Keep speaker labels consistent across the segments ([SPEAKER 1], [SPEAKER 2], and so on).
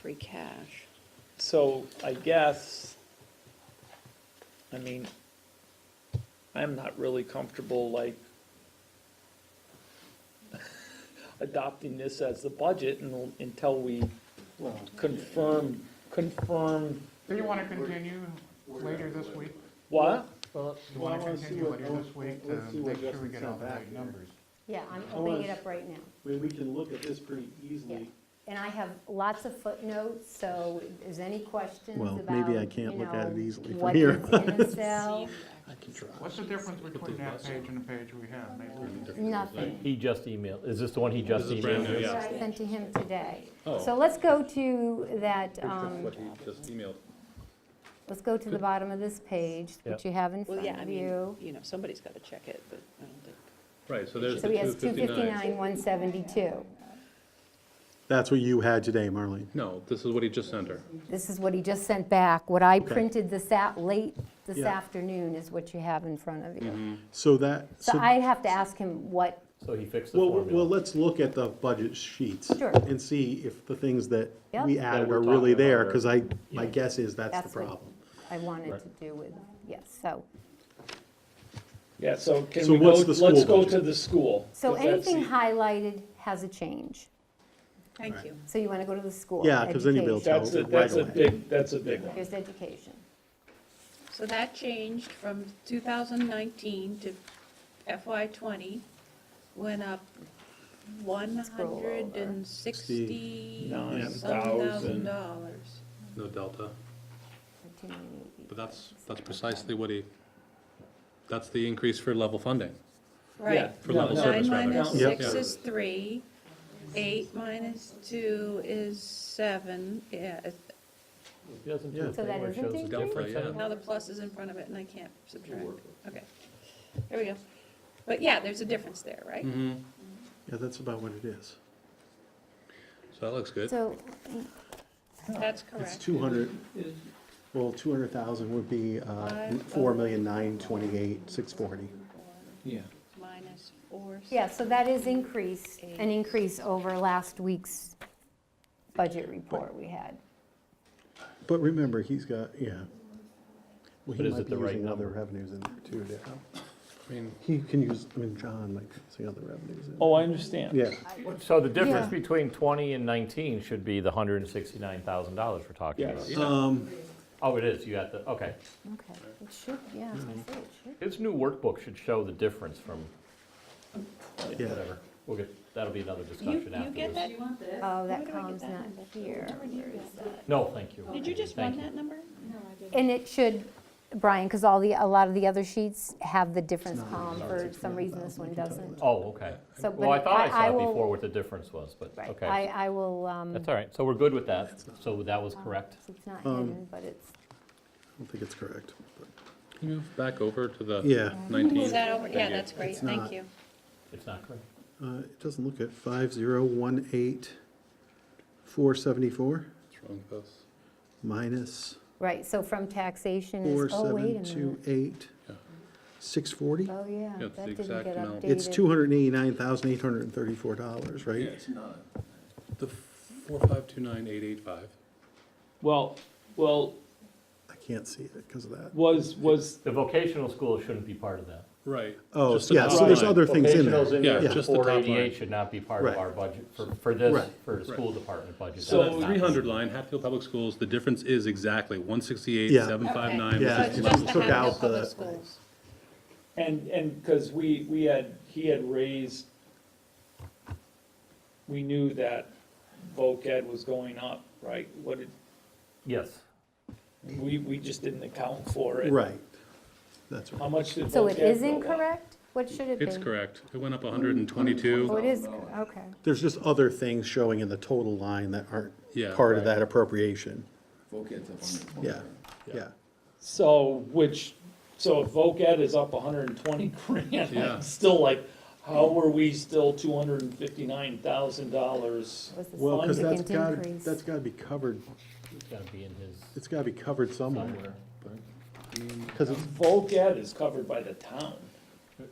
[SPEAKER 1] free cash.
[SPEAKER 2] So I guess, I mean, I'm not really comfortable like adopting this as the budget un- until we
[SPEAKER 3] Well,
[SPEAKER 2] confirm, confirm
[SPEAKER 4] Do you want to continue later this week?
[SPEAKER 2] what?
[SPEAKER 3] well,
[SPEAKER 4] Do you want
[SPEAKER 3] I
[SPEAKER 4] to
[SPEAKER 3] wanna see
[SPEAKER 4] continue
[SPEAKER 3] what-
[SPEAKER 4] later this week to
[SPEAKER 3] let's see what
[SPEAKER 4] make sure we
[SPEAKER 3] Justin
[SPEAKER 4] get all
[SPEAKER 3] sent
[SPEAKER 4] the
[SPEAKER 3] back
[SPEAKER 4] right
[SPEAKER 3] here.
[SPEAKER 4] numbers?
[SPEAKER 5] Yeah, I'm
[SPEAKER 3] I
[SPEAKER 5] opening
[SPEAKER 3] wanna
[SPEAKER 5] it
[SPEAKER 3] s-
[SPEAKER 5] up right now.
[SPEAKER 3] I mean, we can look at this pretty
[SPEAKER 5] Yeah.
[SPEAKER 3] easily.
[SPEAKER 5] And I have lots of footnotes, so is any questions
[SPEAKER 6] Well,
[SPEAKER 5] about,
[SPEAKER 6] maybe I
[SPEAKER 5] you
[SPEAKER 6] can't look at it
[SPEAKER 5] know,
[SPEAKER 6] easily from
[SPEAKER 5] what
[SPEAKER 6] here.
[SPEAKER 5] is in a cell?
[SPEAKER 6] I can try.
[SPEAKER 4] What's the difference between that page and the page we have? Nathan?
[SPEAKER 5] Nothing.
[SPEAKER 7] He just emailed, is this the one he just
[SPEAKER 8] This is brand new,
[SPEAKER 7] emailed?
[SPEAKER 8] yeah.
[SPEAKER 5] I sent to him today.
[SPEAKER 8] Oh.
[SPEAKER 5] So let's go to that, um,
[SPEAKER 8] What he just emailed.
[SPEAKER 5] let's go to the bottom of this page, which
[SPEAKER 7] Yep.
[SPEAKER 5] you have in
[SPEAKER 1] Well,
[SPEAKER 5] front
[SPEAKER 1] yeah, I
[SPEAKER 5] of
[SPEAKER 1] mean,
[SPEAKER 5] you.
[SPEAKER 1] you know, somebody's got to check it, but I don't think.
[SPEAKER 8] Right, so there's
[SPEAKER 5] So
[SPEAKER 8] the
[SPEAKER 5] he has
[SPEAKER 8] 259.
[SPEAKER 5] 259, 172.
[SPEAKER 6] That's what you had today, Marlene.
[SPEAKER 8] No, this is what he just sent her.
[SPEAKER 5] This is what he just sent back. What I printed this out late this
[SPEAKER 6] Yeah.
[SPEAKER 5] afternoon is what you have in front of
[SPEAKER 8] Mm-hmm.
[SPEAKER 5] you.
[SPEAKER 6] So that,
[SPEAKER 5] So
[SPEAKER 6] so,
[SPEAKER 5] I have to ask him what
[SPEAKER 7] So he fixed the
[SPEAKER 6] well, well,
[SPEAKER 7] formula.
[SPEAKER 6] let's look at the budget sheets.
[SPEAKER 5] Sure.
[SPEAKER 6] And see if the things that
[SPEAKER 5] Yep.
[SPEAKER 6] we
[SPEAKER 5] That
[SPEAKER 6] added
[SPEAKER 7] we're
[SPEAKER 6] are really
[SPEAKER 7] talking about
[SPEAKER 6] there,
[SPEAKER 7] are-
[SPEAKER 6] because I, my
[SPEAKER 7] Yeah.
[SPEAKER 6] guess is that's the
[SPEAKER 5] That's what-
[SPEAKER 6] problem.
[SPEAKER 5] I wanted
[SPEAKER 7] Right.
[SPEAKER 5] to do with, yes, so.
[SPEAKER 2] Yeah, so can
[SPEAKER 6] So
[SPEAKER 2] we go,
[SPEAKER 6] what's the school
[SPEAKER 2] let's go
[SPEAKER 6] budget?
[SPEAKER 2] to the school.
[SPEAKER 5] So
[SPEAKER 2] 'cause that's
[SPEAKER 5] anything
[SPEAKER 2] the-
[SPEAKER 5] highlighted has a change.
[SPEAKER 1] Thank you.
[SPEAKER 5] So you want to go to the school.
[SPEAKER 6] Yeah, 'cause then you'll be able to-
[SPEAKER 2] That's a, that's a
[SPEAKER 6] Right away.
[SPEAKER 2] big, that's a big one.
[SPEAKER 5] Here's education.
[SPEAKER 9] So that changed from 2019 to FY '20, went up
[SPEAKER 5] Scroll over.
[SPEAKER 9] 160
[SPEAKER 2] Nine
[SPEAKER 9] thousand
[SPEAKER 2] thousand.
[SPEAKER 9] dollars.
[SPEAKER 8] No delta,
[SPEAKER 5] 1380.
[SPEAKER 8] but that's, that's precisely what he, that's the increase for level funding.
[SPEAKER 9] Right.
[SPEAKER 8] For level
[SPEAKER 2] No, no,
[SPEAKER 8] service
[SPEAKER 9] Nine
[SPEAKER 8] rather.
[SPEAKER 9] minus
[SPEAKER 2] Yeah.
[SPEAKER 9] six is three, eight minus two is seven, yeah, it-
[SPEAKER 7] He doesn't do
[SPEAKER 6] Yeah.
[SPEAKER 7] a
[SPEAKER 5] So
[SPEAKER 7] thing
[SPEAKER 5] that
[SPEAKER 7] where it
[SPEAKER 5] isn't
[SPEAKER 7] shows the
[SPEAKER 5] increased?
[SPEAKER 8] Delta,
[SPEAKER 7] difference
[SPEAKER 8] yeah.
[SPEAKER 7] anymore.
[SPEAKER 9] now the plus is in front of it and I can't subtract, okay. There we go. But yeah, there's a difference there, right?
[SPEAKER 8] Mm. Mm-hmm.
[SPEAKER 6] Yeah, that's about what it is.
[SPEAKER 8] So that looks good.
[SPEAKER 5] So,
[SPEAKER 9] That's
[SPEAKER 6] It's
[SPEAKER 9] correct.
[SPEAKER 6] two hundred, well, two hundred thousand would be, uh,
[SPEAKER 9] Five.
[SPEAKER 6] four million nine twenty-eight, six forty.
[SPEAKER 2] Yeah.
[SPEAKER 9] Minus four.
[SPEAKER 5] yeah, so that is increase, an increase over last week's budget report we had.
[SPEAKER 6] But remember, he's got, yeah. Well, he
[SPEAKER 7] But is
[SPEAKER 6] might
[SPEAKER 7] it
[SPEAKER 6] be
[SPEAKER 7] the right
[SPEAKER 6] using other
[SPEAKER 7] number?
[SPEAKER 6] revenues in there too, Darryl.
[SPEAKER 8] I mean,
[SPEAKER 6] He can use, I mean, John might be using other revenues in.
[SPEAKER 2] Oh, I understand.
[SPEAKER 6] Yeah,
[SPEAKER 7] So the difference
[SPEAKER 5] Yeah.
[SPEAKER 7] between 20 and 19 should be the $169,000 we're talking about.
[SPEAKER 2] Yes.
[SPEAKER 6] um,
[SPEAKER 7] Oh, it is, you got the, okay.
[SPEAKER 5] Okay, it should, yeah, I was
[SPEAKER 6] Mm-hmm.
[SPEAKER 5] gonna say it should.
[SPEAKER 7] His new workbook should show the difference from,
[SPEAKER 6] yeah.
[SPEAKER 7] whatever. We'll get, that'll be another
[SPEAKER 9] You,
[SPEAKER 7] discussion
[SPEAKER 9] you get
[SPEAKER 7] afterwards.
[SPEAKER 9] that?
[SPEAKER 5] Oh,
[SPEAKER 9] Where
[SPEAKER 5] that
[SPEAKER 9] do I get
[SPEAKER 5] column's
[SPEAKER 9] that
[SPEAKER 5] not
[SPEAKER 9] number?
[SPEAKER 5] here. Where is that?
[SPEAKER 7] No, thank you.
[SPEAKER 9] Did you just
[SPEAKER 7] Thank
[SPEAKER 9] run that number?
[SPEAKER 5] And it should, Brian, because all the, a lot of the other sheets have the difference column. For some reason, this one doesn't.
[SPEAKER 7] Oh, okay.
[SPEAKER 5] So,
[SPEAKER 7] Well, I
[SPEAKER 5] but
[SPEAKER 7] thought I saw it
[SPEAKER 5] will-
[SPEAKER 7] before what the difference was, but,
[SPEAKER 5] Right, I,
[SPEAKER 7] okay.
[SPEAKER 5] I will, um,
[SPEAKER 7] That's all right, so we're good with that. So that was correct.
[SPEAKER 5] it's not
[SPEAKER 6] Um,
[SPEAKER 5] hidden, but it's,
[SPEAKER 6] I don't think it's correct. but-
[SPEAKER 8] can you move back over to the
[SPEAKER 6] Yeah,
[SPEAKER 9] Is
[SPEAKER 8] 19?
[SPEAKER 9] that over? Yeah,
[SPEAKER 8] you.
[SPEAKER 9] that's great,
[SPEAKER 6] It's
[SPEAKER 9] thank
[SPEAKER 6] not.
[SPEAKER 9] you.
[SPEAKER 7] It's not correct.
[SPEAKER 6] uh, it doesn't look at five zero one eight four seventy-four
[SPEAKER 8] What's wrong with this?
[SPEAKER 6] minus
[SPEAKER 5] right, so from taxation
[SPEAKER 6] four
[SPEAKER 5] is, oh, wait
[SPEAKER 6] seven
[SPEAKER 5] a
[SPEAKER 6] two
[SPEAKER 5] minute.
[SPEAKER 6] eight
[SPEAKER 8] Yeah.
[SPEAKER 6] six forty.
[SPEAKER 5] Oh, yeah,
[SPEAKER 8] Yeah, it's the
[SPEAKER 5] that didn't
[SPEAKER 8] exact
[SPEAKER 5] get updated.
[SPEAKER 8] amount.
[SPEAKER 6] It's two hundred and eighty-nine thousand eight hundred and thirty-four dollars,
[SPEAKER 8] Yeah,
[SPEAKER 6] right?
[SPEAKER 8] it's not. The 4529885.
[SPEAKER 2] Well, well,
[SPEAKER 6] I can't see it because of that.
[SPEAKER 2] was, was
[SPEAKER 7] The vocational school shouldn't be part of that.
[SPEAKER 8] Right.
[SPEAKER 6] Oh,
[SPEAKER 8] Just the
[SPEAKER 6] yeah,
[SPEAKER 8] top
[SPEAKER 6] so there's
[SPEAKER 8] line.
[SPEAKER 6] other things in
[SPEAKER 7] Vocational's
[SPEAKER 6] there.
[SPEAKER 8] in there.
[SPEAKER 6] Yeah.
[SPEAKER 8] Yeah, just the top
[SPEAKER 7] Four
[SPEAKER 8] line.
[SPEAKER 7] eighty-eight should not be part
[SPEAKER 6] Right.
[SPEAKER 7] of our budget, for, for this,
[SPEAKER 6] Right.
[SPEAKER 7] for the school department budget.
[SPEAKER 2] So
[SPEAKER 7] That's
[SPEAKER 8] So
[SPEAKER 7] not-
[SPEAKER 8] 300 line, Hatfield Public Schools, the difference is exactly 168,
[SPEAKER 6] Yeah.
[SPEAKER 8] 759.
[SPEAKER 6] Yeah,
[SPEAKER 9] So it's
[SPEAKER 8] versus
[SPEAKER 6] you
[SPEAKER 9] just the
[SPEAKER 6] took out
[SPEAKER 9] Hatfield
[SPEAKER 6] the-
[SPEAKER 9] Public Schools.
[SPEAKER 2] And, and, because we, we had, he had raised, we knew that voc ed was going up, right? What did,
[SPEAKER 7] Yes,
[SPEAKER 2] we, we just didn't account for it.
[SPEAKER 6] Right. That's
[SPEAKER 2] How
[SPEAKER 6] right.
[SPEAKER 2] much did voc ed
[SPEAKER 5] So it is
[SPEAKER 2] go up?
[SPEAKER 5] incorrect? What should it be?
[SPEAKER 8] It's correct. It went up 122.
[SPEAKER 5] Oh, it is, cor- okay.
[SPEAKER 6] There's just other things showing in the total line that aren't
[SPEAKER 8] Yeah,
[SPEAKER 6] part of
[SPEAKER 8] right.
[SPEAKER 6] that appropriation. Yeah, yeah.
[SPEAKER 2] So, which, so if voc ed is up hundred and twenty grand,
[SPEAKER 8] Yeah.
[SPEAKER 2] I'm still like, how are we still two hundred and fifty-nine thousand dollars?
[SPEAKER 5] Was the
[SPEAKER 6] Well, because that's
[SPEAKER 5] significant
[SPEAKER 6] got,
[SPEAKER 5] increase.
[SPEAKER 6] that's got to be covered,
[SPEAKER 7] it's gotta be in his
[SPEAKER 6] it's got to be covered somewhere.
[SPEAKER 7] somewhere.
[SPEAKER 6] Because it's,
[SPEAKER 2] Voc ed is covered by the town.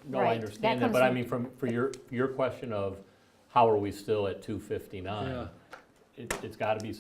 [SPEAKER 7] No, I
[SPEAKER 5] Right, that
[SPEAKER 7] understand that,
[SPEAKER 5] comes
[SPEAKER 7] but I
[SPEAKER 5] from-
[SPEAKER 7] mean, from, for your, your question of how are we still at two fifty-nine? It, it's gotta be